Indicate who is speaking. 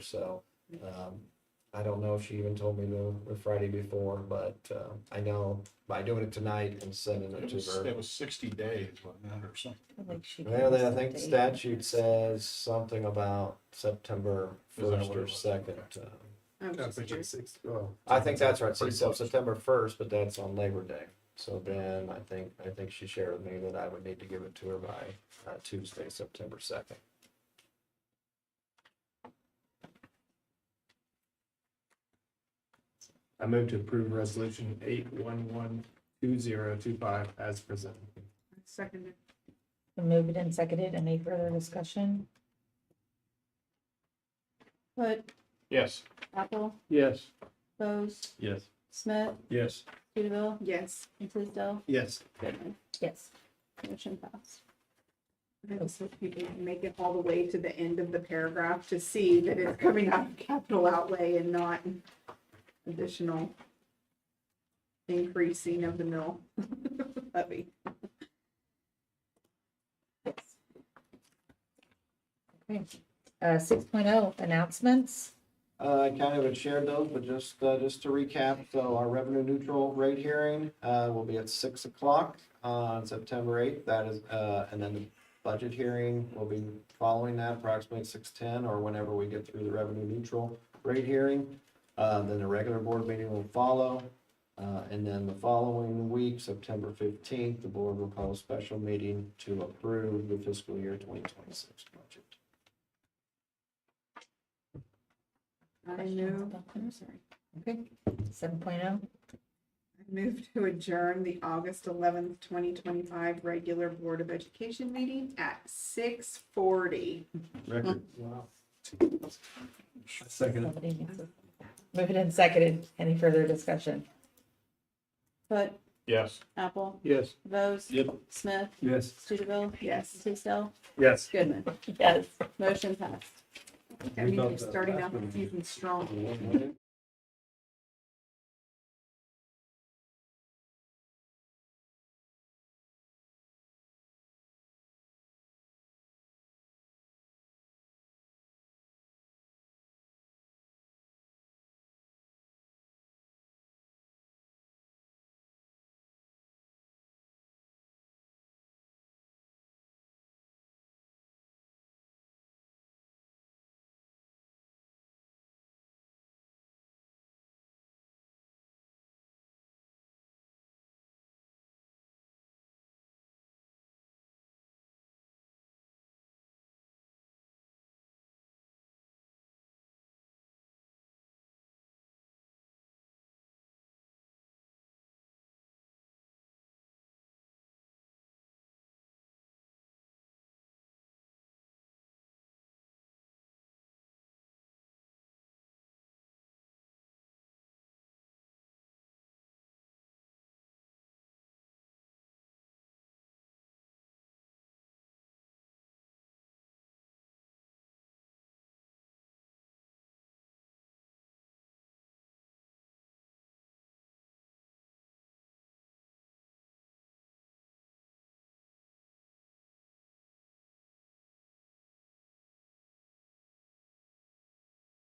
Speaker 1: So, um, I don't know if she even told me the, the Friday before, but, uh, I know by doing it tonight and sending it
Speaker 2: It
Speaker 1: to
Speaker 2: was,
Speaker 1: her.
Speaker 2: it was sixty days, wasn't it, or something?
Speaker 3: I think she gave
Speaker 1: Well,
Speaker 3: us
Speaker 1: then I
Speaker 3: the
Speaker 1: think
Speaker 3: date.
Speaker 1: statute says something about September
Speaker 2: Is that
Speaker 1: first
Speaker 2: what it
Speaker 1: or
Speaker 2: was?
Speaker 1: second. uh,
Speaker 4: Oh,
Speaker 5: I was just curious.
Speaker 1: I think that's right, so
Speaker 2: Pretty
Speaker 1: so
Speaker 2: close.
Speaker 1: September first, but that's on Labor Day. So then I think, I think she shared with me that I would need to give it to her by, uh, Tuesday, September second.
Speaker 6: I move to approve resolution eight one one two zero two five as presented.
Speaker 5: Seconded.
Speaker 3: Been Moved and seconded. Any further discussion?
Speaker 5: Hood,
Speaker 2: Yes.
Speaker 5: Apple,
Speaker 6: Yes.
Speaker 5: Bose,
Speaker 6: Yes.
Speaker 5: Smith,
Speaker 6: Yes.
Speaker 5: Studeville. Yes. And Tisdale,
Speaker 6: Yes.
Speaker 5: Goodman.
Speaker 3: Yes.
Speaker 5: Motion passed.
Speaker 4: I just hope people can make it all the way to the end of the paragraph to see that it's coming out of capital outlay and not additional increasing of the mill levy.
Speaker 3: Okay. Uh, six announcements.
Speaker 1: Uh, I kind of had shared those, but just, uh, just to recap, so our revenue neutral rate hearing, uh, will be at six o'clock on September eighth. That is, uh, and then the budget hearing will be following that approximately six-ten or whenever we get through the revenue neutral rate hearing. Uh, then the regular board meeting will follow. Uh, and then the following week, September fifteenth, the board will call a special meeting to approve the fiscal year twenty twenty-six budget.
Speaker 4: I
Speaker 3: Questions
Speaker 4: move,
Speaker 3: about
Speaker 4: I'm
Speaker 3: those?
Speaker 4: sorry,
Speaker 3: Okay. Seven oh.
Speaker 4: I move to adjourn the August eleventh, twenty twenty-five regular Board of Education meeting at six forty.
Speaker 1: Record.
Speaker 6: Second.
Speaker 3: Moved and seconded. Any further discussion?
Speaker 5: Hood,
Speaker 2: Yes.
Speaker 5: Apple,
Speaker 6: Yes.
Speaker 5: Bose.
Speaker 6: Yep.
Speaker 5: Smith,
Speaker 6: Yes.
Speaker 5: Studeville.
Speaker 4: Yes.
Speaker 5: Tisdale,
Speaker 6: Yes.
Speaker 5: Goodman.
Speaker 3: Yes.
Speaker 5: Motion passed.
Speaker 4: I mean, you're starting out the season strong.
Speaker 1: One minute.